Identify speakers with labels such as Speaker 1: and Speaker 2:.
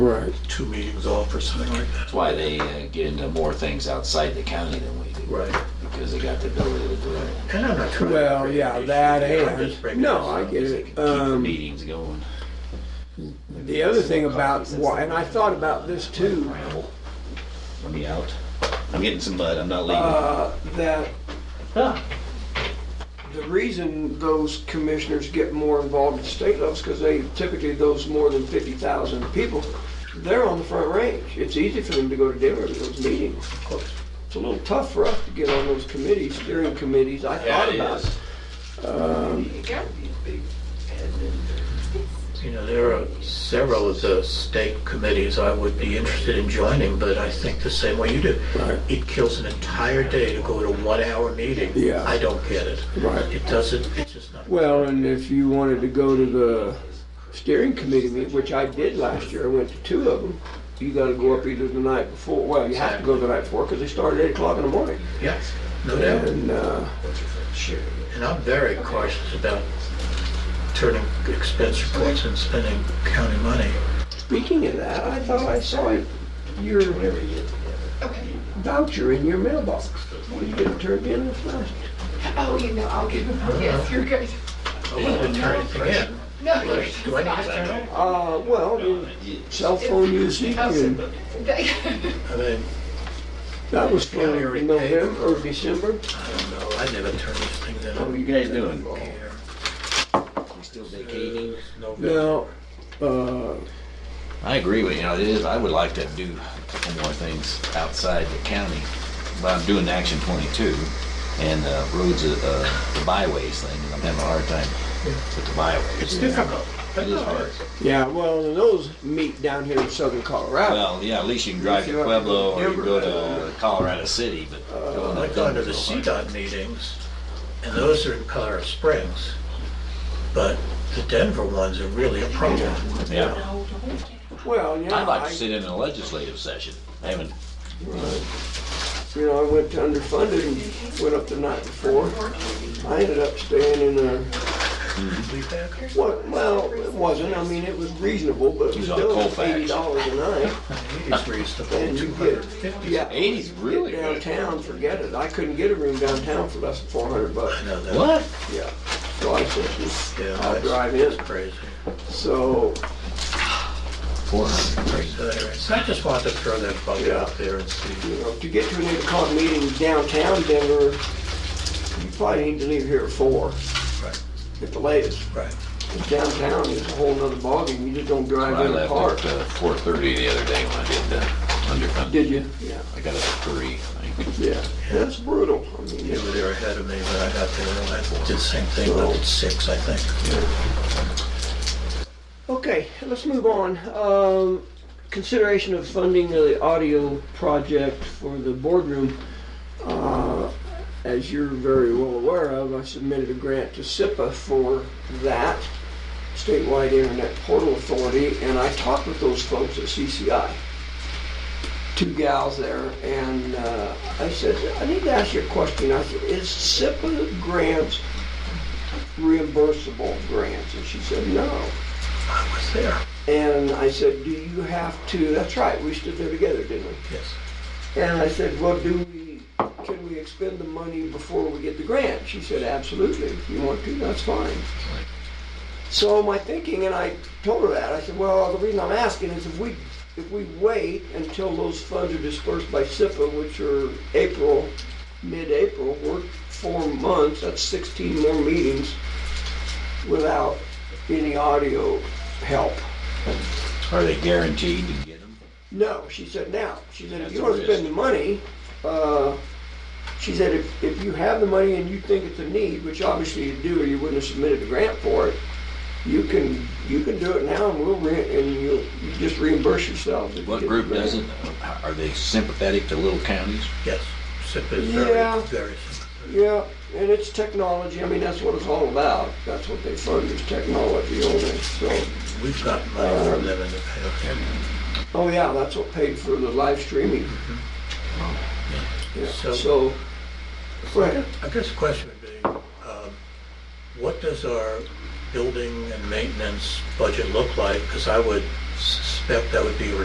Speaker 1: Right,
Speaker 2: two meetings off or something like that.
Speaker 3: That's why they uh, get into more things outside the county than we do.
Speaker 2: Right.
Speaker 3: Because they got the ability to do it.
Speaker 2: And I'm not trying. to
Speaker 1: well,
Speaker 2: bring
Speaker 1: yeah,
Speaker 2: an issue
Speaker 1: that
Speaker 2: here. I'm just
Speaker 1: and,
Speaker 2: bringing
Speaker 1: no,
Speaker 2: this
Speaker 1: I
Speaker 2: up.
Speaker 1: get
Speaker 3: They can
Speaker 1: it.
Speaker 3: Keep the
Speaker 1: Um,
Speaker 3: meetings going.
Speaker 1: the other thing about, why- and I thought about this too,
Speaker 3: Ramble. Let me out. I'm getting some mud. I'm not leaving.
Speaker 1: uh, that the reason those commissioners get more involved at state levels because they typically, those more than 50,000 people, they're on the front range. It's easy for them to go to Denver to those meetings. It's a little tough for us to get on those committees, steering committees. I thought about it.
Speaker 3: You gotta be a big admin.
Speaker 2: You know, there are several of the state committees I would be interested in joining, but I think the same way you do.
Speaker 1: Right.
Speaker 2: It kills an entire day to go to one hour meeting.
Speaker 1: Yeah.
Speaker 2: I don't get it.
Speaker 1: Right.
Speaker 2: It doesn't, it's just not.
Speaker 1: Well, and if you wanted to go to the steering committee meeting, which I did last year, I went to two of them, you gotta go up either the night before, well, you have to go the night before, because they start at eight o'clock in the morning.
Speaker 2: Yes, no doubt.
Speaker 1: And, uh,
Speaker 2: And I'm very cautious about turning expense reports and spending county money.
Speaker 1: speaking of that, I thought I saw your voucher in your mailbox. Well, you didn't turn it in this last.
Speaker 4: Oh, you know, I'll give them, yes, you're good.
Speaker 2: I wouldn't turn anything in.
Speaker 4: No, you're
Speaker 2: Do I need to turn it?
Speaker 1: Uh, well, your cell phone usage, and
Speaker 4: They-
Speaker 2: I mean,
Speaker 1: that was for November or December.
Speaker 2: I don't know, I never turn these things in.
Speaker 3: What are you guys doing?
Speaker 2: Here.
Speaker 3: You still vacating?
Speaker 2: November.
Speaker 1: Now, uh,
Speaker 3: I agree with you. You know, it is. I would like to do a couple more things outside the county. But I'm doing Action 22 and uh, roads, uh, the byways thing. and I'm having a hard time with the byways.
Speaker 2: It's difficult.
Speaker 3: It is hard.
Speaker 1: yeah, well, and those meet down here in southern Colorado.
Speaker 3: Well, yeah, at least you can drive to Pueblo or you can go to Colorado City, but going
Speaker 2: I've
Speaker 3: to
Speaker 2: gone to the
Speaker 3: Denver's a lot.
Speaker 2: CDOT meetings, and those are in Colorado Springs, but the Denver ones are really a problem.
Speaker 3: Yeah,
Speaker 1: Well, yeah.
Speaker 3: I'd like to
Speaker 1: I-
Speaker 3: sit in a legislative session. I haven't,
Speaker 1: You know, I went to underfunded and went up the night before. I ended up staying in a,
Speaker 2: Leave that.
Speaker 1: what, well, it wasn't, I mean, it was reasonable, but it was
Speaker 3: He's on
Speaker 1: still
Speaker 3: Colfax.
Speaker 1: eighty dollars a night.
Speaker 2: He's raised the whole
Speaker 1: And you
Speaker 2: two
Speaker 1: get,
Speaker 2: hundred fifty.
Speaker 1: yeah.
Speaker 3: eighty's really
Speaker 1: Get
Speaker 3: good.
Speaker 1: Downtown, forget it. I couldn't get a room downtown for less than four hundred bucks.
Speaker 3: What?
Speaker 1: Yeah. So I said,
Speaker 2: Yeah,
Speaker 1: I'll
Speaker 2: that's-
Speaker 1: drive in.
Speaker 2: that's crazy.
Speaker 1: So,
Speaker 3: Four hundred.
Speaker 2: So anyway, so I just wanted to throw that bug
Speaker 1: Yeah.
Speaker 2: out there and see.
Speaker 1: you know, to get to an eight o'clock meeting downtown Denver, you probably need to leave here at four
Speaker 2: Right,
Speaker 1: at the latest.
Speaker 2: right.
Speaker 1: downtown is a whole nother ballgame, you just don't
Speaker 3: I
Speaker 1: drive in a
Speaker 3: left
Speaker 1: car.
Speaker 3: at uh, four thirty the other day when I did the underfund.
Speaker 1: Did you? Yeah.
Speaker 3: I got it for three, I think.
Speaker 1: Yeah, that's brutal. I mean,
Speaker 2: You
Speaker 1: it's-
Speaker 2: were there ahead of me when I got there, and I did the same thing, but it's six, I think.
Speaker 1: Okay, let's move on. Um, consideration of funding the audio project for the boardroom. Uh, as you're very well aware of, I submitted a grant to SIPA for that, Statewide Internet Portal Authority, and I talked with those folks at CCI. Two gals there, and uh, I said, I need to ask you a question. I said, is SIPA grants reimbursable grants? And she said, no.
Speaker 2: I was there,
Speaker 1: And I said, do you have to, that's right, we stood there together, didn't we?
Speaker 2: yes.
Speaker 1: And I said, well, do we, can we expend the money before we get the grant? She said, absolutely, if you want to, that's fine. So my thinking, and I told her that, I said, well, the reason I'm asking is if we, if we wait until those funds are dispersed by SIPA, which are April, mid-April, we're four months, that's sixteen more meetings without any audio help.
Speaker 3: Are they guaranteed to get them?
Speaker 1: No, she said now. She said, if
Speaker 3: That's
Speaker 1: you
Speaker 3: a
Speaker 1: want to
Speaker 3: risk.
Speaker 1: spend the money, uh, she said, if, if you have the money and you think it's a need, which obviously you do, or you wouldn't have submitted a grant for it, you can, you can do it now and we'll, re- and you'll, you just reimburse yourself. if you get
Speaker 3: What
Speaker 1: the
Speaker 3: group
Speaker 1: grant.
Speaker 3: doesn't? Are they sympathetic to little counties?
Speaker 2: Yes, SIP is
Speaker 1: Yeah.
Speaker 2: very, very simple.
Speaker 1: Yeah, and it's technology. I mean, that's what it's all about. That's what they fund is technology only, so.
Speaker 2: We've gotten money from them in the past.
Speaker 1: Oh, yeah, that's what paid for the live streaming.
Speaker 3: Mm-hmm.
Speaker 1: Yeah,
Speaker 2: So-
Speaker 1: so, go ahead.
Speaker 2: I guess the question would be, um, what does our building and maintenance budget look like? Because I would s- expect that would be a